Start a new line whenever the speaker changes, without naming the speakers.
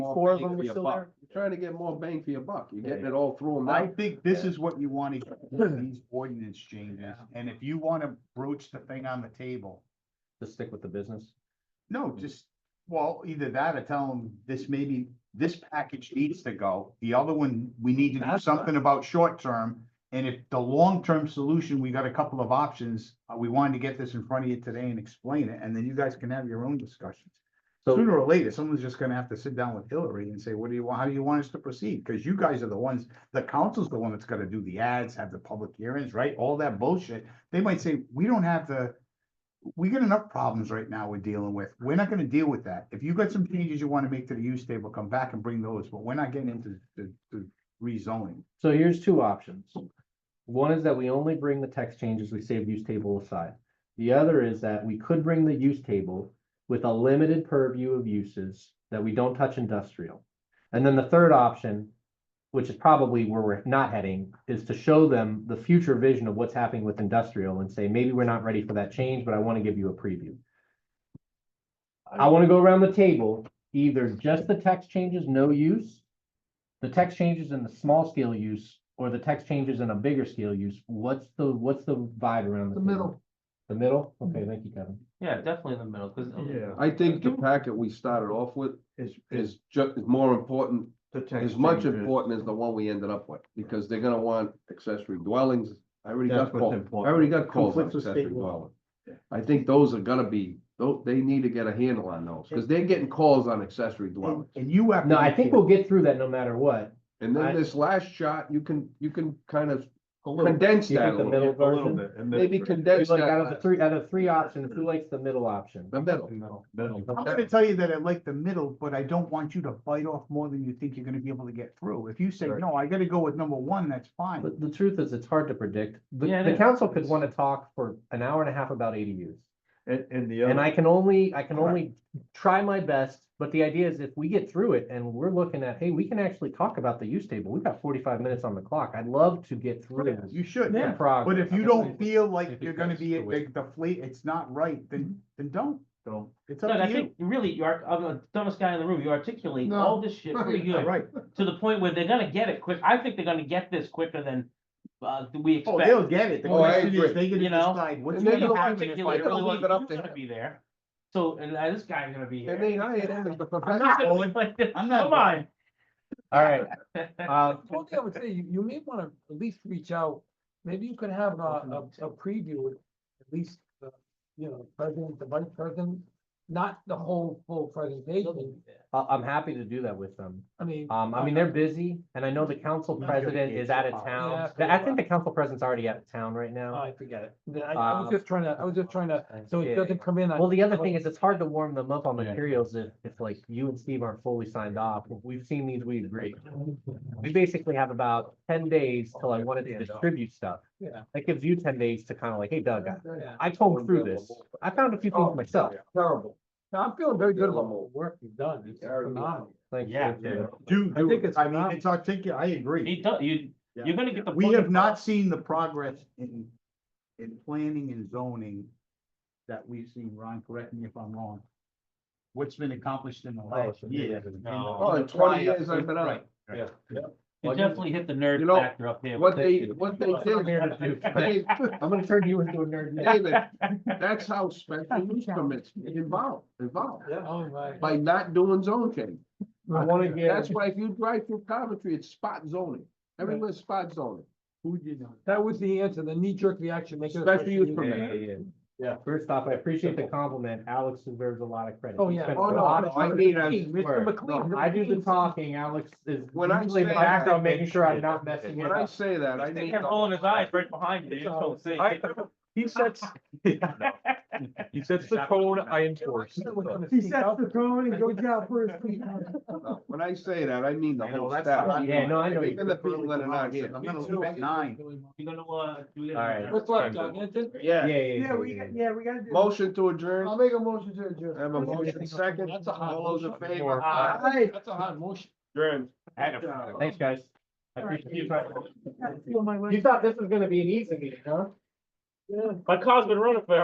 four of them
bang
were
for
still
your
there?
buck. You're Trying to get more bang for your buck, you're getting
Yeah.
it all through them
I
now.
think this is what you want to, hear, these ordinance changes, and if you want to broach the thing on the table,
To stick with the business.
no, just, well, either that or tell them this maybe, this package needs to go, the other one, we need to do
That's
something about short term, and if the long-term solution, we got a couple of options, uh, we wanted to get this in front of you today and explain it, and then you guys can have your own discussions.
So,
Sooner or later, someone's just gonna have to sit down with Hillary and say, what do you want, how do you want us to proceed? Cause you guys are the ones, the council's the one that's gonna do the ads, have the public hearings, right? All that bullshit. They might say, we don't have the, we got enough problems right now we're dealing with. We're not gonna deal with that. If you got some changes you wanna make to the use table, come back and bring those, but we're not getting into the, the rezoning.
So here's two options.
options. One is that we only bring the text changes, we save use table aside. The other is that we could bring the use table with a limited purview of uses that we don't touch industrial. And then the third option, which is probably where we're not heading, is to show them the future vision of what's happening with industrial and say, maybe we're not ready for that change, but I want to give you a preview. I want to go around the table, either just the text changes, no use, the text changes in the small scale use, or the text changes in a bigger scale use. What's the, what's the vibe around the
The
table?
middle.
The middle?
Mm-hmm.
Okay, thank you, Kevin.
Yeah, definitely in the middle, cause. um,
I think the packet we started off with
Is,
is ju- is more important,
the text
is much
changes.
important as the one we ended up with, because they're gonna want accessory dwellings. I already got
That's what's
called, I
important.
already got calls on
Conflicts with
accessory
state law.
dwelling.
Yeah.
I think those are gonna be, tho- they need to get a handle on those, because they're getting calls on accessory
And
dwellings.
and you have. to
No, I
make
think
it-
we'll get through that no matter what.
And
I-
then this last shot, you can, you can kind of
A little bit.
condense
You
that
think
a
the
little bit.
middle
A little
version?
bit. and
Maybe
then-
condense
Like out of the
that,
three, out of three options, who likes the middle option?
the middle.
Middle, middle.
I'm gonna tell you that I like the middle, but I don't want you to bite off more than you think you're gonna be able to get through. If you say,
Right.
no, I gotta go with number one, that's fine.
But the truth is, it's hard to predict. The,
Yeah, it
the
is.
council could want to talk for an hour and a half about ADUs.
And, and the
And
other,
I can only, I can only try my best, but the idea is if we get through it and we're looking at, hey, we can actually talk about the use table. We've got forty-five minutes on the clock. I'd love to get through.
You should,
the
Yeah.
but
progress.
if you don't
Definitely.
feel like
think
you're gonna
that's
be,
the way- Mm-hmm.
like, the fleet, it's not right, then, then don't.
don't,
It's
Doug,
up
I
to you.
think really you are, I'm the dumbest guy in the room, you articulate all this shit pretty
Yeah,
good,
Right.
to the point where they're gonna get it quick, I think they're gonna get this quicker than. Uh, we
Oh, they'll
expect,
get it. The
Oh, I
question is,
agree.
they gonna
You know?
decide what's.
And
you
they're
gonna
gonna
happen
leave
if
it-
I
articulate
they're
don't
really well,
leave it up
you're
to
gonna
him.
be there, so, and uh, this guy's gonna be here.
And they hired him as the
I'm
professional.
not gonna
rolling.
be like this.
I'm not
Come on.
All right, uh,
Well, I would say you, you may wanna at least reach out, maybe you could have a, a, a preview with at least, uh, you know, president, the vice president, not the whole full presentation,
I, I'm happy to do that with them.
I mean.
Um, I mean, they're busy and I know the council
Not gonna
president
get
is out
you
of
out.
Yeah,
town.
forget
I think
about
the council president's already out of town right
Oh,
now.
I forget it, Then I, I was
Um,
just trying to, I was just trying to, so it doesn't come in. on-
Well, the other thing is it's hard to warm them up on
Yeah.
materials if, if like you and Steve aren't fully signed off. We've seen these, we agree. We basically have about ten
Oh,
days till I wanted to distribute stuff.
Yeah.
That gives you ten days to kind of like, hey Doug, I-
Yeah,
I combed through this. I found a few things
Oh,
myself.
terrible. No, I'm feeling very good about the work you've done, it's phenomenal.
Thank you.
Yeah, Oh, yeah. Do,
I
do
think
it.
it's
I mean,
phenomenal.
it's articulate, I agree.
You don't, you,
Yeah.
you're gonna get the.
We
point
have
across.
not seen the progress in, in planning and zoning that we've seen, Ron, correct me if I'm wrong. What's been accomplished in the last year?
No.
Oh, in twenty years I've been on.
Right.
yeah.
You definitely hit the nerd
You know,
factor up here.
What
with
they,
this shit.
what they
I'm here to do-
did.
I'm gonna turn you into a nerd. now.
David, that's how special use permits involve, involve,
Oh, my.
by not doing zone change.
I wanna
That's
get,
why if you drive through Coventry, it's spot zoning, everywhere's spot zoning.
Who did not?
That was the answer, the knee jerk reaction. make it a
Special use
use
permit.
yeah, first off, I appreciate the compliment. Alex deserves a lot of credit.
Oh,
He
yeah.
spent
Oh,
a
no,
lot of
I
time-
mean, I-
Mr. McLean.
I do the talking, Alex is
When I
usually in the
say that-
background, making sure I'm not messing it
When I
up.
say that, I
They
mean,
kept rolling his eyes right behind you, you just don't see.
I- He sets, he sets the tone I enforce.
He sets the tone and goes out first.
no, when I say that, I mean the
I know,
whole
that's
staff.
not-
Yeah, no, I know. you-
Even the people that are not here.
I'm gonna leave at nine.
You're gonna, uh. do it.
All right.
What's left, Doug? That's it?
Yeah,
Yeah,
yeah, yeah, yeah, yeah.
yeah, we gotta do.
motion to adjourn,
I'll make a motion to adjourn.
I have a motion second,
That's a hot
all those in
motion.
favor?
Aye. That's a hot motion.
Adjourn.
Thanks, guys. I
All right.
appreciate you. You thought this was gonna be an easy meeting, huh?
Yeah.
My car's been running for